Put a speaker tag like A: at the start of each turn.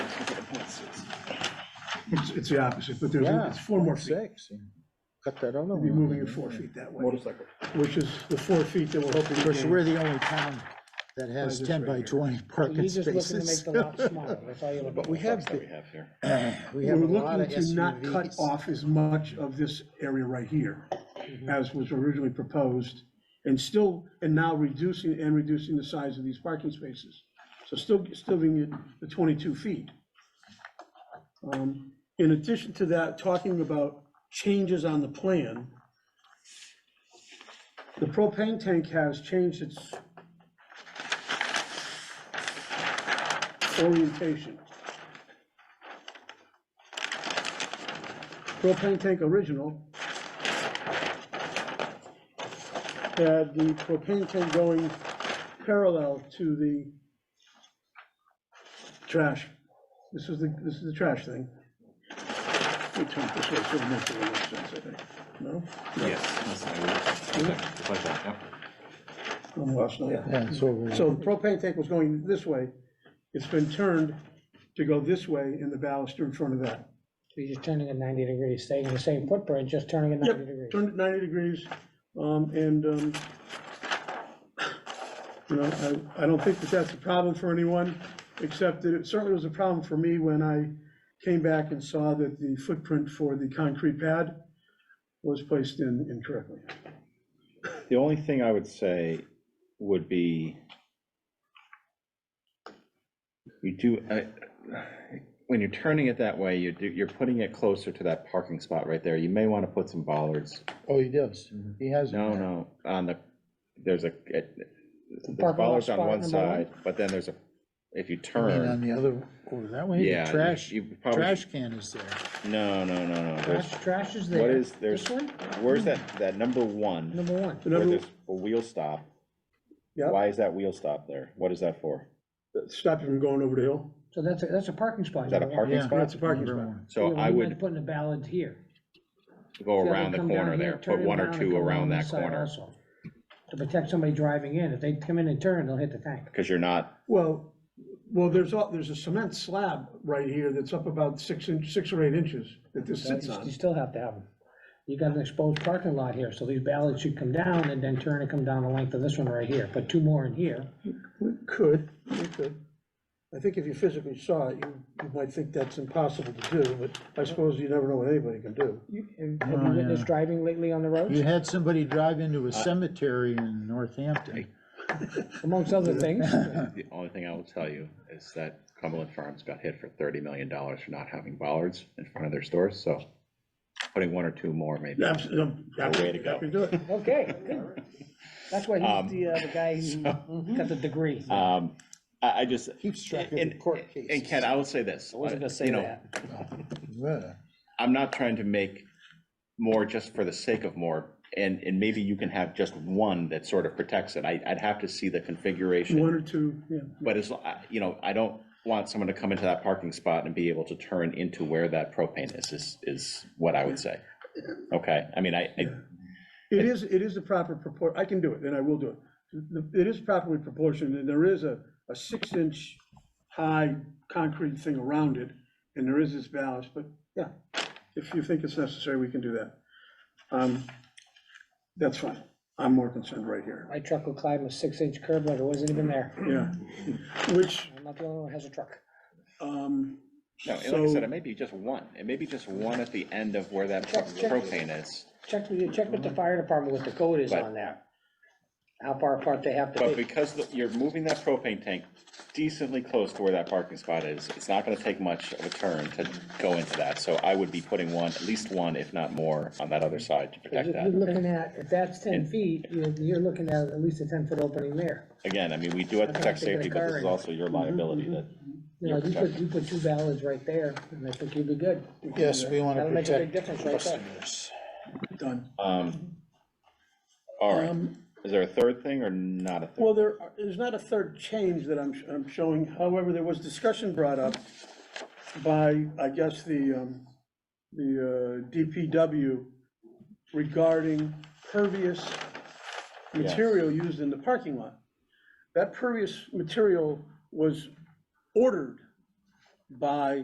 A: It's, it's the opposite, but there's,
B: Yeah,
A: it's four more feet.
B: Six, cut that other
A: We'll be
B: one.
A: moving it four feet that way, which is the four feet that we're hoping to
B: Because
A: gain.
B: we're the only town that has
A: this
B: ten
A: right
B: by
A: here.
B: twenty
C: You're
B: parking
C: just looking to make
B: spaces.
C: the lot smaller, that's all you're looking
B: But
C: for.
B: we have,
D: that we have here.
B: we
A: We're
B: have a lot
A: looking
B: of
A: to not cut
B: SUVs.
A: off as much of this area right here
B: Mm-hmm.
A: as was originally proposed, and still, and now reducing, and reducing the size of these parking spaces. So still, still being at the 22 feet. Um, In addition to that, talking about changes on the plan, the propane tank has changed its orientation. propane tank original had the propane tank going parallel to the trash. This is the, this is the trash thing. We turn this way, so it makes a little sense, I think. No?
D: Yes. that's how it works. Just like that, yep.
A: I'm lost now.
B: Yeah, it's over.
A: So the propane tank was going this way. It's been turned to go this way in the baluster in front of that.
C: You're just turning it ninety degrees, staying in the same footprint, just turning it ninety
A: Yep,
C: degrees.
A: turned it ninety degrees, um, and, um, you know, I, I don't think that that's a problem for anyone, except that it certainly was a problem for me when I came back and saw that the footprint for the concrete pad was placed in incorrectly.
D: The only thing I would say would be you do, I- when you're turning it that way, you do, you're putting it closer to that parking spot right there. You may want to put some bollards.
B: Oh, he does,
A: Mm-hmm.
B: he has. it
D: No,
B: there.
D: no, on the, there's a, it- there's
C: lot
D: bollards on
C: spot
D: one
C: number one?
D: side, but then there's a, if you
B: I mean, on
D: turn,
B: the other, over that way,
D: yeah.
B: the
D: you-
B: trash,
D: You probably,
B: trash can is there.
D: no, no, no, no.
C: Trash,
D: There's,
C: trash is there.
D: what is, there's,
C: This one,
D: where's that, that number one?
C: number one.
A: The
D: Where
A: number-
D: there's a wheel stop.
A: Yeah,
D: Why is that wheel stop there? What is that for?
A: that stopped you from going over the hill.
C: So that's, a that's a parking spot.
D: Is that a
C: number one.
D: parking
B: Yeah.
D: spot?
A: That's a parking
B: Number
A: spot.
B: one.
D: So
C: Yeah,
D: I
C: we might
D: would
C: Put in a ballad here.
D: go
C: Yeah,
D: around the
C: come down
D: corner
C: here,
D: there,
C: turn
D: put
C: it
D: one or
C: around and
D: two
C: come
D: around
C: down
D: that
C: this side
D: corner,
C: also, To protect somebody driving in, if they come in and turn, they'll hit the tank.
D: because you're not,
A: Well, well, there's, a- there's a cement slab right here that's up about six inch, six or eight inches that this
C: You
A: sits on.
C: you still have to have them. You got an exposed parking lot here, so these ballards should come down and then turn and come down the length of this one right here. Put two more in here.
A: We could, we could. I think if you physically saw it, you, you might think that's impossible to do, but I suppose you never know what anybody can do.
C: You- Have have you witnessed driving lately on the
B: You
C: roads?
B: had somebody drive into
D: Uh,
B: a cemetery in Northampton.
C: Amongst other things,
D: the only thing I will tell you is that Cumberland Farms got hit for thirty million dollars for not having bollards in front of their stores, so putting one or two more maybe.
A: Absolutely.
D: Way to go.
A: Happy to do it.
C: okay, good. That's why
D: Um,
C: he's the, uh, the guy who got the degree.
D: Um, I, I just, uh,
B: Keeps track of the
D: and,
B: court cases.
D: and Ken, I will say this. uh,
C: I wasn't gonna say
D: you know,
C: that.
B: Yeah.
D: I'm not trying to make more just for the sake of more, and, and maybe you can have just one that sort of protects it. I, I'd have to see the configuration.
A: One or two, yeah.
D: But as, lo- I- you know, I don't want someone to come into that parking spot and be able to turn into where that propane is, is, is what I would say. Okay, I mean, I, I-
A: It is, it is the proper propor, I can do it, and I will do it. The- It is properly proportioned, and there is a, a six-inch high concrete thing around it, and there is this ballast, but yeah, if you think it's necessary, we can do that. Um, That's fine. I'm more concerned right here,
C: My truck will climb a six-inch curb like it wasn't even there.
A: yeah. Which,
C: I'm not the only one who has a truck.
A: um,
D: no, and like I said, it may be just one, it may be just one at the end of where that
C: Check, check.
D: propane is.
C: Check with, you- check with the
D: Mm-hmm.
C: fire department what the code is on that. How far apart they have to
D: But
C: be.
D: because the- you're moving that propane tank decently close to where that parking spot is, it's not gonna take much of a turn to go into that. So I would be putting one, at least one, if not more, on that other side to protect
C: If You're
D: that.
C: looking at, if that's ten feet, you're, you're looking at at least a ten-foot opening there.
D: Again, I mean, we do have to protect
C: I'd have to
D: safety,
C: get
D: but
C: a car
D: this is
C: in.
D: also your liability that
C: You know, you put, you put two ballards right there, and I think you'd be good.
B: Yes, we want to
C: That'll make a big
B: protect
C: difference right there.
B: customers.
A: done.
D: Um, All right,
A: Um,
D: is there a third thing or not a third?
A: Well, there, are- there's not a third change that I'm, I'm showing, however, there was discussion brought up by, I guess, the, um, the uh, DPW regarding pervious material used in the parking lot. That pervious material was ordered by